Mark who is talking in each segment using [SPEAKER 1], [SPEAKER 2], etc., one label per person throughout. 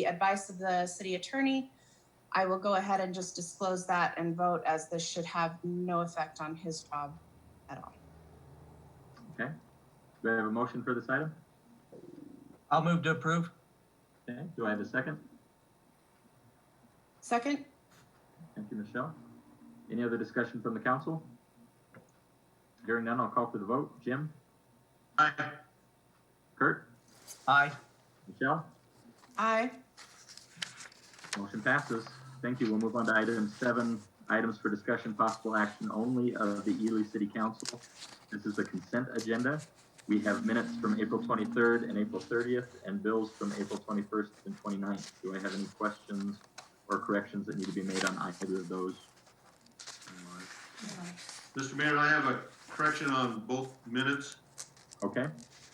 [SPEAKER 1] the advice of the city attorney, I will go ahead and just disclose that and vote as this should have no effect on his job at all.
[SPEAKER 2] Okay. Do I have a motion for this item?
[SPEAKER 3] I'll move to approve.
[SPEAKER 2] Okay. Do I have a second?
[SPEAKER 1] Second,
[SPEAKER 2] Thank you, Michelle. Any other discussion from the council? Hearing none, I'll call for the vote. Jim?
[SPEAKER 3] Aye.
[SPEAKER 2] Kurt?
[SPEAKER 3] Aye.
[SPEAKER 2] Michelle?
[SPEAKER 1] aye.
[SPEAKER 2] Motion passes. Thank you. We'll move on to item seven, items for discussion, possible action only of the Ely City Council. This is the consent agenda. We have minutes from April twenty-third and April thirtieth, and bills from April twenty-first and 29th. Do I have any questions or corrections that need to be made on either of those?
[SPEAKER 4] Mr. Mayor, I have a correction on both minutes.
[SPEAKER 2] Okay,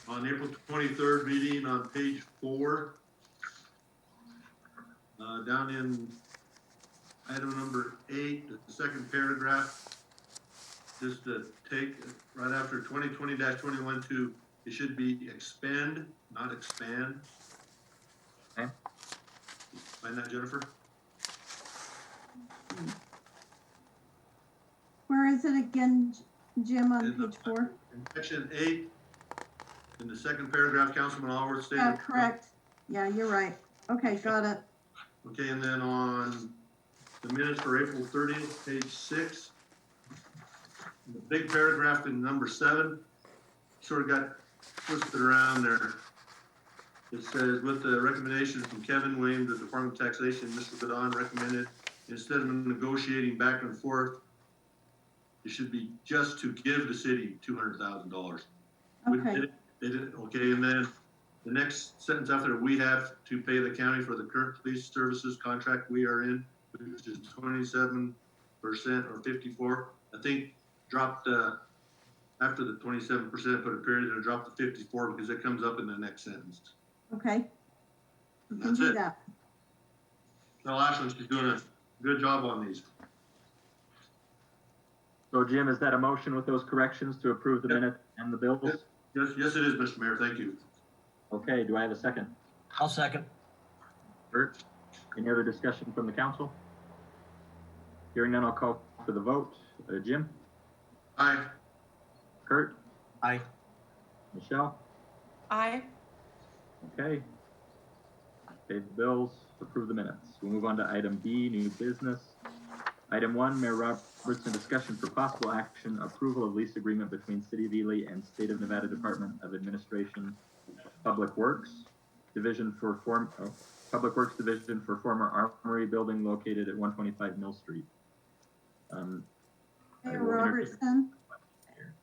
[SPEAKER 4] On April 23rd meeting on page four, uh, down in item number eight, the second paragraph, just to take, right after 2020-21-2, it should be expand, not expand.
[SPEAKER 2] Okay.
[SPEAKER 4] Find that, Jennifer?
[SPEAKER 5] Where is it again, J- Jim, on
[SPEAKER 4] In the-
[SPEAKER 5] page four?
[SPEAKER 4] In section eight, in the second paragraph, Councilman Allworth stated.
[SPEAKER 5] Yeah, Uh, correct. Yeah, you're right. Okay, got it.
[SPEAKER 4] Okay, and then on the minutes for April thirtieth, page six, the big paragraph in number seven, sort of got twisted around there. It says, with the recommendation from Kevin Wayne, the Department of Taxation, Mr. Badon recommended, instead of negotiating back and forth, it should be just to give the city two hundred thousand dollars. We
[SPEAKER 5] Okay,
[SPEAKER 4] did it- They did, it, okay, and then the next sentence after, we have to pay the county for the current police services contract we are in, which is twenty-seven percent or fifty-four. I think dropped, uh, after the twenty-seven percent, put a period and dropped to fifty-four because it comes up in the next sentence.
[SPEAKER 5] okay. You can
[SPEAKER 4] That's
[SPEAKER 5] do
[SPEAKER 4] it.
[SPEAKER 5] that.
[SPEAKER 4] Now, Ashlyn's doing a good job on these.
[SPEAKER 2] so Jim, is that a motion with those corrections to approve the
[SPEAKER 4] Yep.
[SPEAKER 2] minutes and the bills?
[SPEAKER 4] Yep. Yes, yes, it is, Mr. Mayor, thank you.
[SPEAKER 2] Okay, do I have a second?
[SPEAKER 3] I'll second.
[SPEAKER 2] Bert, any other discussion from the council? Hearing none, I'll call for the vote. Uh, Jim?
[SPEAKER 4] Aye.
[SPEAKER 2] Kurt?
[SPEAKER 3] Aye.
[SPEAKER 2] Michelle?
[SPEAKER 1] Aye.
[SPEAKER 2] Okay. Pay the bills, approve the minutes. We'll move on to item B, new business. Item one, Mayor Robertson, discussion for possible action, approval of lease agreement between City of Ely and State of Nevada Department of Administration, Public Works Division for form, oh, Public Works Division for former Armory Building located at one twenty-five Mill Street. Um, I
[SPEAKER 5] Mayor
[SPEAKER 2] will entertain-
[SPEAKER 5] Robertson,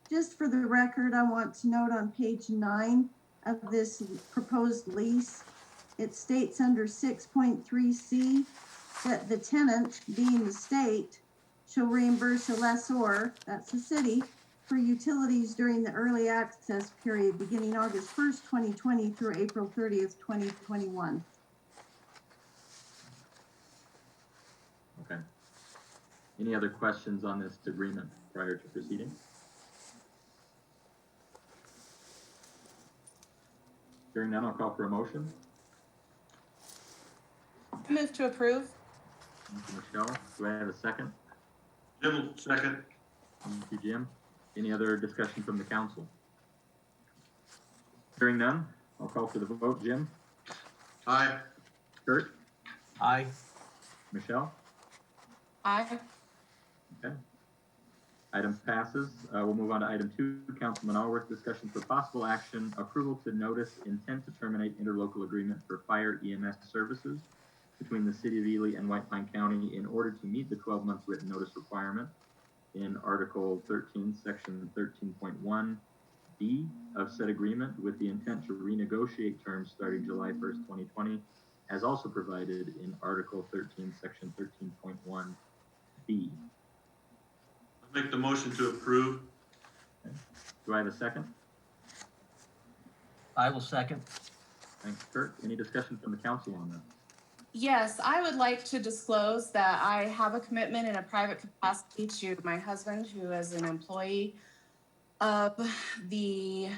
[SPEAKER 5] just for the record, I want to note on page nine of this proposed lease, it states under six point three C that the tenant, being the state, shall reimburse the lessor, that's the city, for utilities during the early access period beginning August first, twenty twenty through April thirtieth, twenty twenty-one.
[SPEAKER 2] Okay. Any other questions on this agreement prior to proceeding? Hearing none, I'll call for a motion.
[SPEAKER 1] Move to approve.
[SPEAKER 2] Thank you, Michelle, do I have a second?
[SPEAKER 4] Jim, will second.
[SPEAKER 2] Thank you, Jim. Any other discussion from the council? Hearing none, I'll call for the vote. Jim,
[SPEAKER 4] Aye.
[SPEAKER 2] Kurt,
[SPEAKER 3] Aye.
[SPEAKER 2] Michelle?
[SPEAKER 1] Aye.
[SPEAKER 2] Item passes. Uh, we'll move on to item two, Councilman Allworth, discussion for possible action, approval to notice intent to terminate interlocal agreement for fire EMS services between the city of Ely and White Pine County in order to meet the twelve month written notice requirement in Article thirteen, Section thirteen point one B of said agreement with the intent to renegotiate terms starting July first, twenty twenty, as also provided in Article thirteen, Section thirteen point one B.
[SPEAKER 4] Make the motion to approve.
[SPEAKER 2] Do I have a second?
[SPEAKER 3] I will second.
[SPEAKER 2] Thanks, Kurt. Any discussion from the council on that?
[SPEAKER 1] Yes, I would like to disclose that I have a commitment in a private capacity to my husband, who is an employee of the,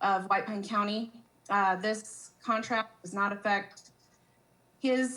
[SPEAKER 1] of White Pine County. Uh, this contract does not affect his